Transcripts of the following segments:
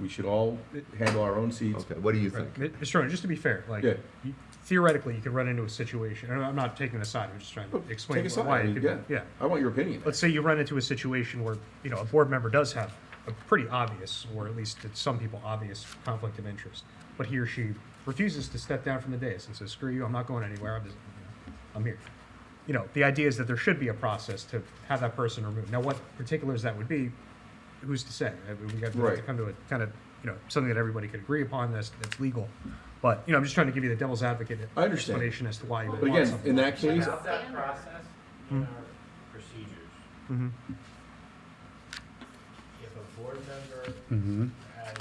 we should all handle our own seats. Okay, what do you Right. think? Mi- Mr. Ronan, just to be fair, like, Yeah. you- theoretically, you could run into a situation, and I'm not taking a side, I'm just trying to explain Take a side. why. I it mean, could- yeah. Yeah. I want your opinion. Let's say you run into a situation where, you know, a board member does have a pretty obvious, or at least to some people, obvious conflict of interest, but he or she refuses to step down from the dais and says, screw you, I'm not going anywhere, I'm just, you know, I'm here. You know, the idea is that there should be a process to have that person removed. Now, what particulars that would be, who's to say? I mean, We got we have to Right. come to a kind of, you know, something that everybody could agree upon that's, that's legal. But, you know, I'm just trying to give you the devil's advocate I understand. explanation as to why you would But want again, something. in that case, Without that Standard. process Hmm. in our procedures, Mhm. if a board member Mm-hmm. has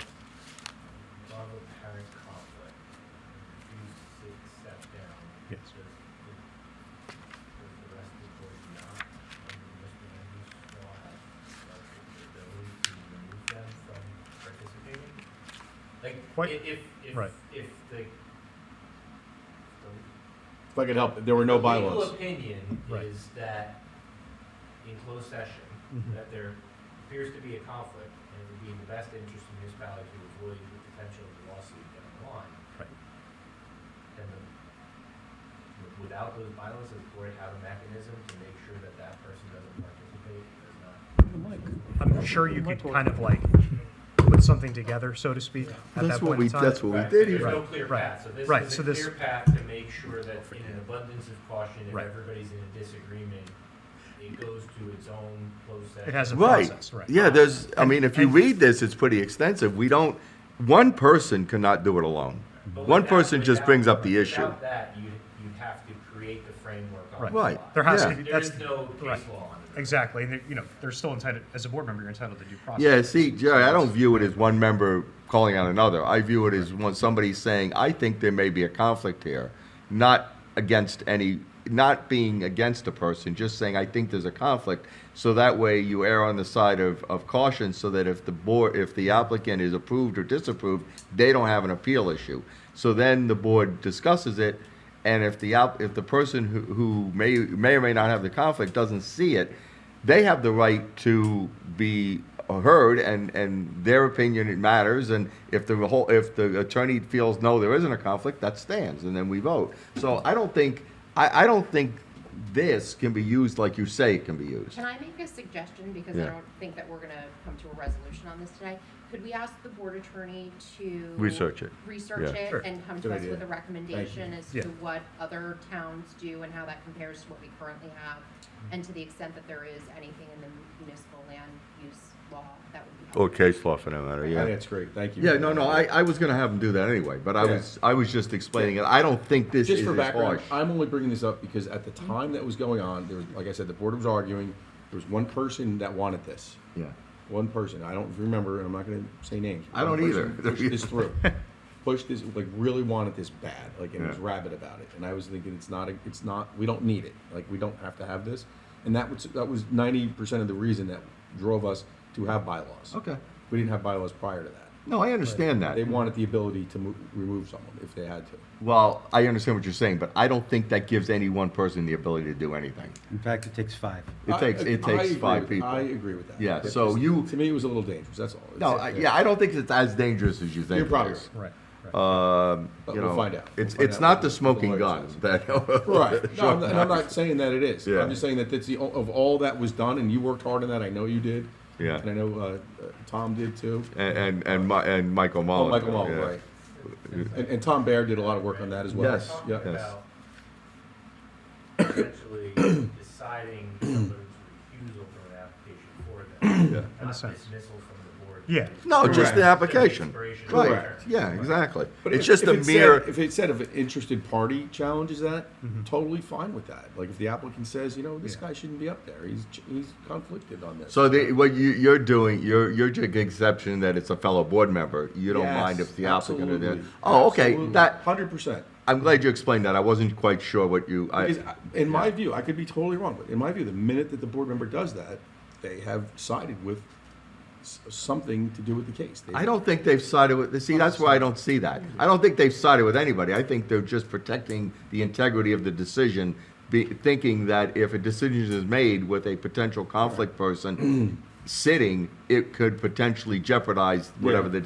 above apparent conflict, refuses to step down. Yes. does the- does the rest of the board not, under Mr. Andrews' law, have like, the ability to remove them from participating? Like, What- i- if, if, Right. if the, the if I could help, there were no the bylaws. Legal opinion Right. is that in closed session, Mhm. that there appears to be a conflict and it would be in the best interest of municipalities to avoid the potential of a lawsuit down the line. Right. And the, w- without those bylaws, does the board have a mechanism to make sure that that person doesn't participate, does not? I'm sure you could kind of like put something together, so to speak, at that That's what point we, in time. that's what Right, we did There's here. no Right, clear right, path, so this right, is so a this- clear path to make sure that in an abundance of caution, if Right. everybody's in a disagreement, it goes to its own closed session. It has a Right. process, right. Yeah, there's, I mean, if you And- read this, it's pretty extensive. We don't, one person cannot do it alone. But One without- person just without- brings up the issue. Without that, you, you have to create the framework on the Right. fly. Right. There has Yeah. to be, There that's, is no case right. law on it. exactly, and, you know, they're still entitled, as a board member, you're entitled to due process. Yeah, see, Jerry, I don't view it as one member calling out another. I view it as when somebody's saying, I think there may be a conflict here, not against any, not being against a person, just saying, I think there's a conflict. So that way you err on the side of, of caution so that if the board, if the applicant is approved or disapproved, they don't have an appeal issue. So then the board discusses it and if the app, if the person who, who may may or may not have the conflict doesn't see it, they have the right to be heard, and and their opinion it matters. And if the whole if the attorney feels no, there isn't a conflict, that stands, and then we vote. So I don't think I, I don't think this can be used like you say it can be used. Can I make a suggestion, because Yeah. I don't think that we're gonna come to a resolution on this today? Could we ask the board attorney to? Research it. Research Yeah. it Sure. and come Good to us idea. with a recommendation as to Yeah. what other towns do and how that compares to what we currently have? And to the extent that there is anything in the municipal land use law, that would be helpful. case law for that matter. I think That's great, thank you. Yeah, no, no, I, I was gonna have them do that anyway, but I Yeah. was I was just explaining it. I don't think this Just is for as background, harsh. I'm only bringing this up because at the time that was going on, there was, like I said, the board was arguing. There was one person that wanted this. yeah. One person, I don't remember, and I'm not gonna say names. I don't One person either. Pushed this through. Pushed this, like really wanted this bad, like, and was Yeah. rabid about it. And I was thinking, it's not, a- it's not, we don't need it. Like, we don't have to have this. And that was, that was ninety percent of the reason that drove us to have bylaws. Okay. We didn't have bylaws prior to that. No, I understand that. They wanted the ability to mo- remove someone if they had to. Well, I understand what you're saying, but I don't think that gives any one person the ability to do anything. In fact, it takes five. It I- takes, I it takes agree five with- I people. agree with that. Yeah, It's so just- you- To me, it was a little dangerous, that's all. No, I, yeah, I don't think it's as dangerous as you think. You're it probably is. Right, right. Um, But you we'll know, find out. It's, We'll find it's out not what the the smoking lawyer gun says. that. Right, no, I'm not- and I'm not saying that it is, Yeah. I'm just saying that that's the, o- of all that was done, and you worked hard on that, I know you did. Yeah. And I know, uh, uh, Tom did too. And, and, and Mi- and Michael Oh, Mullen. Michael Mullen, yeah. right. And, and Tom Baer did a lot of work on that as well. Yes, Talking Yeah. yes. about Essentially deciding someone's refusal from an application for them, not a sense. dismissal from the board. Yeah. No, just the Correct. application. Inspiration. Right, Correct. yeah, exactly. But It's if- just if a it said- mere, If it said if an interested party challenges that, totally fine with that. Like if the applicant says, you know, this Yeah. guy shouldn't be up there, he's, ch- he's conflicted on this. so the, what you, you're doing, you're, you're taking exception that it's a fellow board member. You don't Yes, mind if the applicant or the, absolutely. oh, okay, Absolutely. that, 100%. I'm glad you explained that. I wasn't quite sure what you. I, Because I- in my view, I could be totally wrong, but in my view, the minute that the board member does that, they have sided with s- something to do with the case. They- I don't think they've sided with. See, that's why I don't see that. I don't think they've sided with anybody. I think they're just protecting the integrity of the decision, be, thinking that if a decision is made with a potential conflict person sitting, it could potentially jeopardize whatever Yeah. the